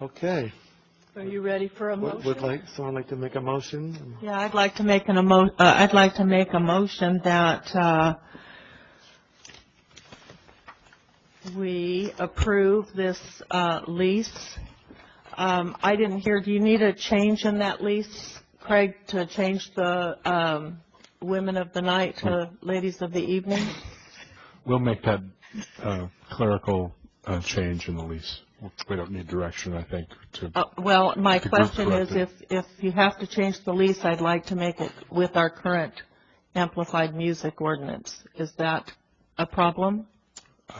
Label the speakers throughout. Speaker 1: Okay.
Speaker 2: Are you ready for a
Speaker 1: Would
Speaker 2: motion?
Speaker 1: would like, someone like to make a motion?
Speaker 3: Yeah, I'd like to make an emo, uh, I'd like to make a motion that, uh, we approve this, uh, lease. Um, I didn't hear, do you need a change in that lease, Craig, to change the, um, women of the night to
Speaker 1: Hmm.
Speaker 3: ladies of the evening?
Speaker 4: We'll make that uh, clerical uh, change in the lease. We don't need direction, I think, to,
Speaker 3: Uh, well, my
Speaker 4: The group
Speaker 3: question is if,
Speaker 4: directed.
Speaker 3: if you have to change the lease, I'd like to make it with our current amplified music ordinance. Is that a problem?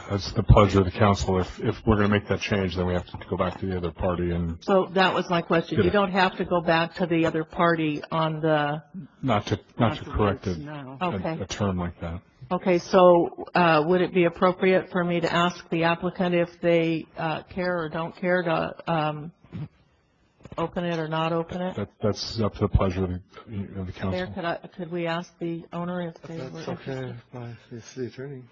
Speaker 4: that's the pleasure of the council. If, if we're going to make that change, then we have to go back to the other party and
Speaker 3: So that was my question. You
Speaker 4: Good.
Speaker 3: don't have to go back to the other party on the,
Speaker 4: not to, not to correct
Speaker 2: Afterwards,
Speaker 4: a,
Speaker 2: No.
Speaker 3: Okay.
Speaker 4: a term like that.
Speaker 3: okay, so uh, would it be appropriate for me to ask the applicant if they uh, care or don't care to um, open it or not open it?
Speaker 4: That, that's up to the pleasure of the, of the
Speaker 3: Mayor,
Speaker 4: council.
Speaker 3: could I, could we ask the owner if they
Speaker 1: That's
Speaker 3: were?
Speaker 1: okay, by the city attorney.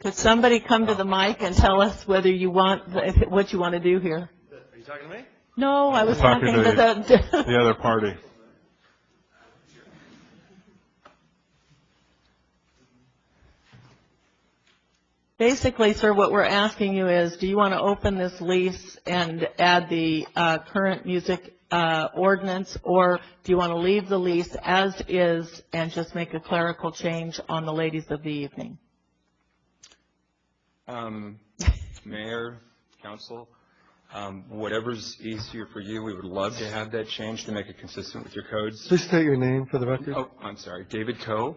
Speaker 3: Could somebody come to the mic and tell us whether you want, if- what you want to do here?
Speaker 5: Are you talking to me?
Speaker 3: No, I was
Speaker 4: Talking
Speaker 3: talking
Speaker 4: to
Speaker 3: to the,
Speaker 4: The other party.
Speaker 3: basically, sir, what we're asking you is, do you want to open this lease and add the uh, current music uh, ordinance? Or do you want to leave the lease as is and just make a clerical change on the ladies of the evening?
Speaker 5: Um, Mayor, council, um, whatever's easier for you, we would love to have that change to make it consistent with your codes.
Speaker 1: Please state your name for the record.
Speaker 5: Oh, I'm sorry, David Coe.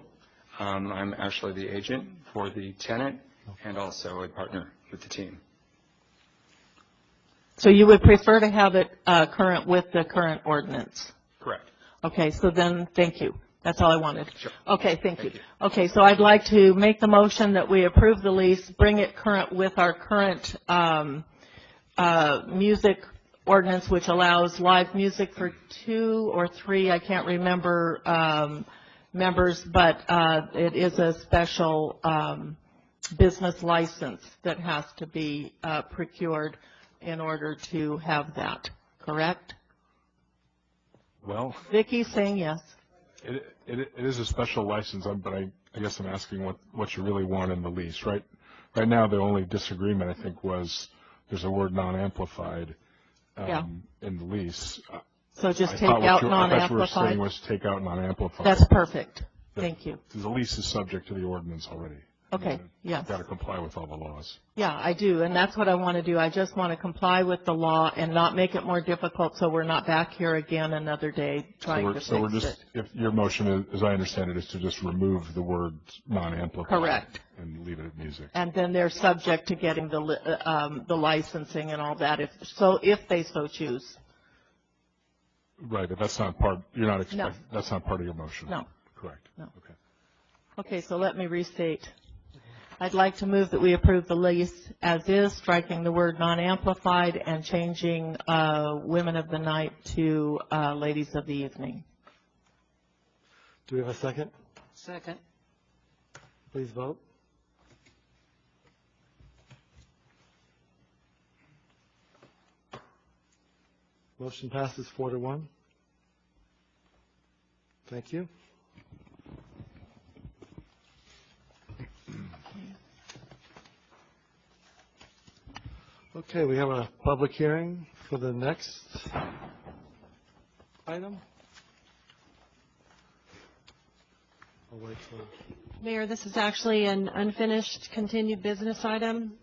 Speaker 5: Um, I'm actually the agent for the tenant and also a partner with the team.
Speaker 3: So you would prefer to have it uh, current with the current ordinance?
Speaker 5: Correct.
Speaker 3: Okay, so then, thank you. That's all I wanted.
Speaker 5: Sure.
Speaker 3: Okay, thank you.
Speaker 5: Thank you.
Speaker 3: Okay, so I'd like to make the motion that we approve the lease, bring it current with our current um, uh, music ordinance, which allows live music for two or three, I can't remember, um, members, but uh, it is a special um, business license that has to be uh, procured in order to have that, correct?
Speaker 4: Well,
Speaker 3: Vicky's saying yes.
Speaker 4: it, it it is a special license, I'm- but I, I guess I'm asking what, what you really want in the lease, right? Right now, the only disagreement, I think, was there's a word non-amplified um, in the lease. I-
Speaker 3: So just
Speaker 4: I
Speaker 3: take
Speaker 4: thought what
Speaker 3: out
Speaker 4: you- I thought you were saying
Speaker 3: non-amplified?
Speaker 4: was take out non-amplified.
Speaker 3: That's perfect. Thank you.
Speaker 4: The lease is subject to the ordinance already.
Speaker 3: Okay, yes.
Speaker 4: Got to comply with all the laws.
Speaker 3: Yeah, I do, and that's what I want to do. I just want to comply with the law and not make it more difficult so we're not back here again another day
Speaker 4: So
Speaker 3: trying
Speaker 4: we're
Speaker 3: to
Speaker 4: so we're
Speaker 3: fix
Speaker 4: just
Speaker 3: it.
Speaker 4: If your motion, is- as I understand it, is to just remove the word non-amplified.
Speaker 3: Correct.
Speaker 4: And leave it at music.
Speaker 3: And then they're subject to getting the, li- uh, um, the licensing and all that if, so if they so choose.
Speaker 4: Right, but that's not part, you're not expecting, that's not part of your motion.
Speaker 3: No.
Speaker 4: Correct.
Speaker 3: No.
Speaker 4: Okay.
Speaker 3: Okay, so let me restate. I'd like to move that we approve the lease as is, striking the word non-amplified and changing, uh, women of the night to, uh, ladies of the evening.
Speaker 1: Do we have a second?
Speaker 2: Second.
Speaker 1: Please vote. Motion passes four to one. Thank you. Okay, we have a public hearing for the next item. I'll wait for,
Speaker 6: Mayor, this is actually an unfinished continued business item,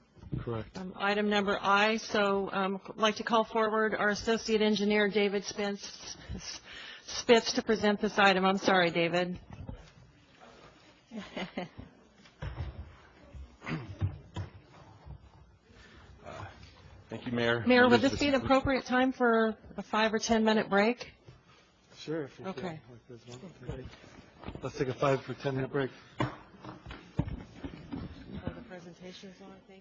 Speaker 1: correct.
Speaker 6: um, item number I. So um, I'd like to call forward our Associate Engineer, David Spence- Spitz, to present this item. I'm sorry, David.
Speaker 5: Thank you, Mayor.
Speaker 6: Mayor, would
Speaker 5: Members of
Speaker 6: this be an
Speaker 5: city-
Speaker 6: appropriate time for a five or 10-minute break?
Speaker 1: Sure, if you can.
Speaker 6: Okay.
Speaker 1: Like this one. Okay. Let's take a five for 10 minute break.
Speaker 6: The presentation's on, thank